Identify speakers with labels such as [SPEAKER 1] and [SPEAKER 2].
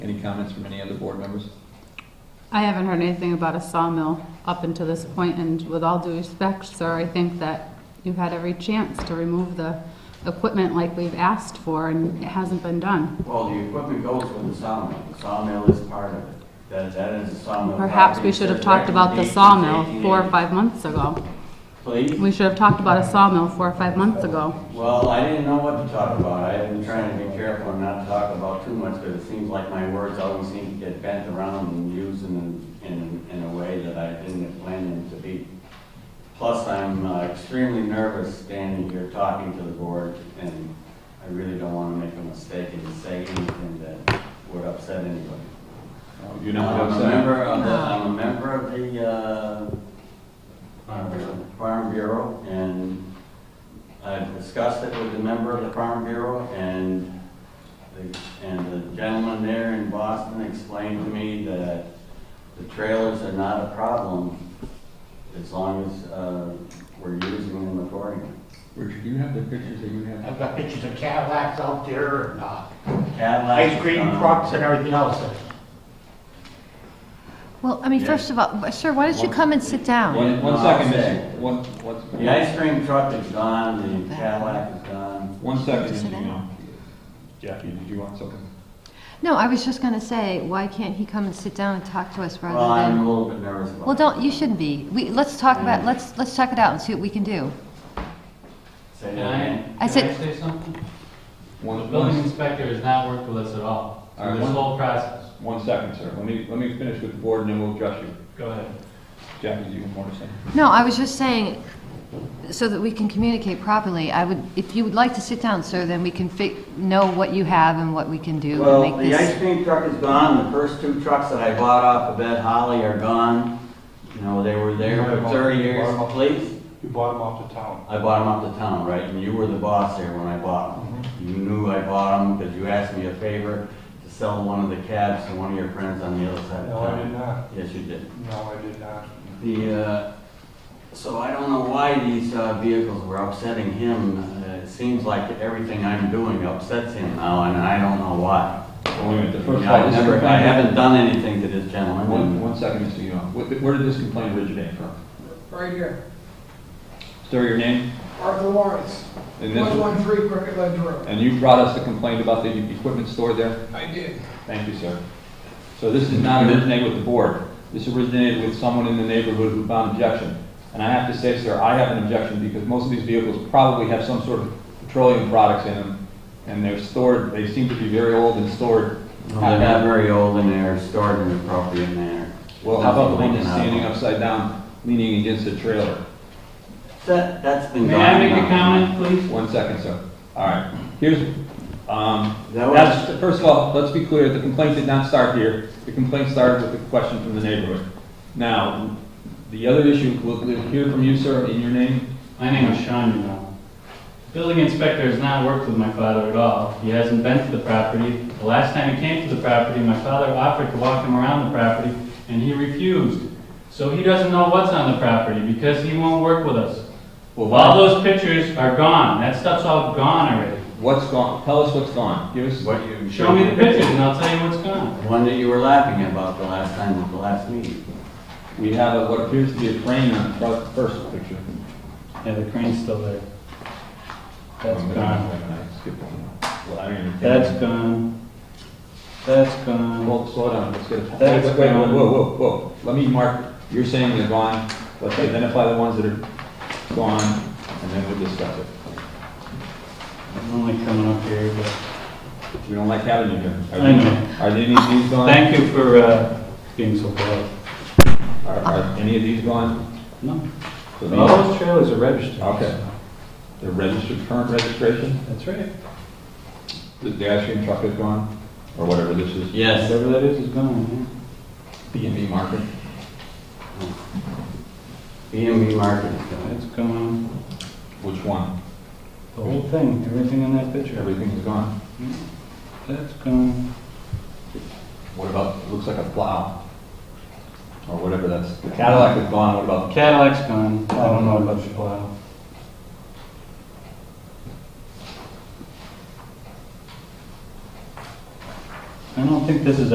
[SPEAKER 1] Any comments from any other board members?
[SPEAKER 2] I haven't heard anything about a sawmill up until this point, and with all due respect, sir, I think that you've had every chance to remove the equipment like we've asked for, and it hasn't been done.
[SPEAKER 3] Well, the equipment goes with the sawmill. The sawmill is part of it. That, that is a sawmill.
[SPEAKER 2] Perhaps
[SPEAKER 3] property.
[SPEAKER 2] we should have
[SPEAKER 3] There's
[SPEAKER 2] talked about the
[SPEAKER 3] recommendations
[SPEAKER 2] sawmill four or
[SPEAKER 3] 1880.
[SPEAKER 2] five months ago.
[SPEAKER 3] Please?
[SPEAKER 2] We should have talked about a sawmill four or five months ago.
[SPEAKER 3] Well, I didn't know what to talk about. I've been trying to be careful and not talk about too much, because it seems like my words always seem to get bent around and used in, in, in a way that I didn't plan them to be. Plus, I'm uh, extremely nervous standing here talking to the board, and I really don't want to make a mistake and say anything that would upset anybody.
[SPEAKER 1] You're
[SPEAKER 3] I'm a member of the, I'm a member of the, uh, Farm Bureau, and I've discussed it with the member of the Farm Bureau, and the, and the gentleman there in Boston explained to me that the trailers are not a problem as long as, uh, we're using them accordingly.
[SPEAKER 1] Richard, do you have the pictures that you have?
[SPEAKER 4] I've got pictures of Cadillacs out there and uh,
[SPEAKER 3] Cadillacs.
[SPEAKER 4] ice cream
[SPEAKER 3] um,
[SPEAKER 4] trucks and everything else.
[SPEAKER 5] Well, I mean,
[SPEAKER 3] Yeah.
[SPEAKER 5] first of all, sir, why don't you come and sit down?
[SPEAKER 1] One, one second, Miss, one, what's-
[SPEAKER 3] The ice cream truck is gone, the Cadillac is gone.
[SPEAKER 1] one second,
[SPEAKER 5] Sit
[SPEAKER 1] you know.
[SPEAKER 5] down.
[SPEAKER 1] Jackie, did you want something?
[SPEAKER 5] No, I was just going to say, why can't he come and sit down and talk to us
[SPEAKER 3] Well,
[SPEAKER 5] rather
[SPEAKER 3] I'm a
[SPEAKER 5] than?
[SPEAKER 3] little bit nervous about it.
[SPEAKER 5] Well, don't, you shouldn't be. We, let's talk about, let's, let's check it out and see what we can do.
[SPEAKER 3] Say
[SPEAKER 6] Can
[SPEAKER 3] that
[SPEAKER 6] I,
[SPEAKER 3] again.
[SPEAKER 5] I
[SPEAKER 6] can I
[SPEAKER 5] said-
[SPEAKER 6] say something? The
[SPEAKER 1] One,
[SPEAKER 6] building
[SPEAKER 1] one,
[SPEAKER 6] inspector has not worked with us at all
[SPEAKER 1] All right,
[SPEAKER 6] through this
[SPEAKER 1] one-
[SPEAKER 6] whole process.
[SPEAKER 1] one second, sir. Let me, let me finish with the board and then we'll address you.
[SPEAKER 6] Go ahead.
[SPEAKER 1] Jackie, do you want more to say?
[SPEAKER 5] No, I was just saying, so that we can communicate properly, I would, if you would like to sit down, sir, then we can fi, know what you have and what we can do and
[SPEAKER 3] Well,
[SPEAKER 5] make
[SPEAKER 3] the ice
[SPEAKER 5] this.
[SPEAKER 3] cream truck is gone, the first two trucks that I bought off of Ed Holly are gone. You know, they were there for thirty years, please.
[SPEAKER 7] You bought them off the town.
[SPEAKER 3] I bought them off the town, right, and you were the boss there when I bought them.
[SPEAKER 7] Mm-hmm.
[SPEAKER 3] You knew I bought them because you asked me a favor to sell one of the cabs to one of your friends on the other side of
[SPEAKER 7] No, I did
[SPEAKER 3] town.
[SPEAKER 7] not.
[SPEAKER 3] Yes, you did.
[SPEAKER 7] No, I did not.
[SPEAKER 3] The, uh, so I don't know why these uh, vehicles were upsetting him. Uh, It seems like everything I'm doing upsets him now, and I don't know why.
[SPEAKER 1] Wait a minute, the first.
[SPEAKER 3] I
[SPEAKER 1] this
[SPEAKER 3] never, I
[SPEAKER 1] complaint-
[SPEAKER 3] haven't done anything to this
[SPEAKER 1] One,
[SPEAKER 3] gentleman.
[SPEAKER 1] one second, Mr. Young. What- Where did this complaint originate from?
[SPEAKER 8] Right here,
[SPEAKER 1] Stir your name?
[SPEAKER 8] Arthur Lawrence,
[SPEAKER 1] And this, was-
[SPEAKER 8] 113 Cricket Ledge Road.
[SPEAKER 1] and you brought us the complaint about the equipment store there?
[SPEAKER 8] I did.
[SPEAKER 1] Thank you, sir. So this did not originate with the board. This originated with someone in the neighborhood who found objection. And I have to say, sir, I have an objection because most of these vehicles probably have some sort of petroleum products in them. And they're stored, they seem to be very old and stored.
[SPEAKER 3] They're not very old and they're stored in an appropriate manner.
[SPEAKER 1] Well, how about the one that's standing upside down, leaning against a trailer?
[SPEAKER 3] That, that's been
[SPEAKER 6] May
[SPEAKER 3] gone.
[SPEAKER 6] I make a
[SPEAKER 3] now.
[SPEAKER 6] comment, please?
[SPEAKER 1] One second, sir. All right. Here's, um,
[SPEAKER 3] That was-
[SPEAKER 1] that's- first of all, let's be clear, the complaint did not start here. The complaint started with a question from the neighborhood. Now, the other issue, we'll we'll hear from you, sir, in your name.
[SPEAKER 6] My name is Sean Urano. Building inspector has not worked with my father at all. He hasn't been to the property. The last time he came to the property, my father offered to walk him around the property, and he refused. So he doesn't know what's on the property because he won't work with us.
[SPEAKER 1] Well,
[SPEAKER 6] All
[SPEAKER 1] why-
[SPEAKER 6] those pictures are gone. That stuff's all gone already.
[SPEAKER 1] What's gone? Tell us what's gone. Give us,
[SPEAKER 3] What you.
[SPEAKER 6] Show me the pictures and I'll tell you what's gone.
[SPEAKER 3] The One that you were laughing about the last time, at the last meeting.
[SPEAKER 1] we have a- what appears to be a crane on the front- first picture.
[SPEAKER 6] Yeah, the crane's still there. That's
[SPEAKER 1] Um,
[SPEAKER 6] gone.
[SPEAKER 1] Skip one. Well, I don't even think-
[SPEAKER 6] That's gone. That's gone.
[SPEAKER 1] Well, slow down, let's get a...
[SPEAKER 6] That's
[SPEAKER 1] Wait, wait, wait,
[SPEAKER 6] gone.
[SPEAKER 1] Whoa, whoa, whoa, let me mark, you're saying they're gone, let's identify the ones that are gone, and then we'll discuss it.
[SPEAKER 6] I'm only coming up here, but
[SPEAKER 1] We don't like having you here. Are
[SPEAKER 6] I
[SPEAKER 1] these-
[SPEAKER 6] know.
[SPEAKER 1] Are any of these gone?
[SPEAKER 6] thank you for uh, being so polite.
[SPEAKER 1] Are, are any of these gone?
[SPEAKER 6] No,
[SPEAKER 1] So these-
[SPEAKER 6] all those trailers are registered.
[SPEAKER 1] Okay. They're registered, current registration,
[SPEAKER 6] That's right.
[SPEAKER 1] the the ice cream truck is gone, or whatever this is,
[SPEAKER 3] Yes,
[SPEAKER 6] Whatever that is is gone.
[SPEAKER 1] B and B market.
[SPEAKER 3] B and B Market.
[SPEAKER 6] yeah. That's gone.
[SPEAKER 1] Which one?
[SPEAKER 6] The whole thing, everything in that picture.
[SPEAKER 1] Everything is gone.
[SPEAKER 6] That's gone.
[SPEAKER 1] What about, it looks like a plow, or whatever that's, the Cadillac is gone, what about?
[SPEAKER 6] Cadillac's gone. I don't know about the plow. I don't think this is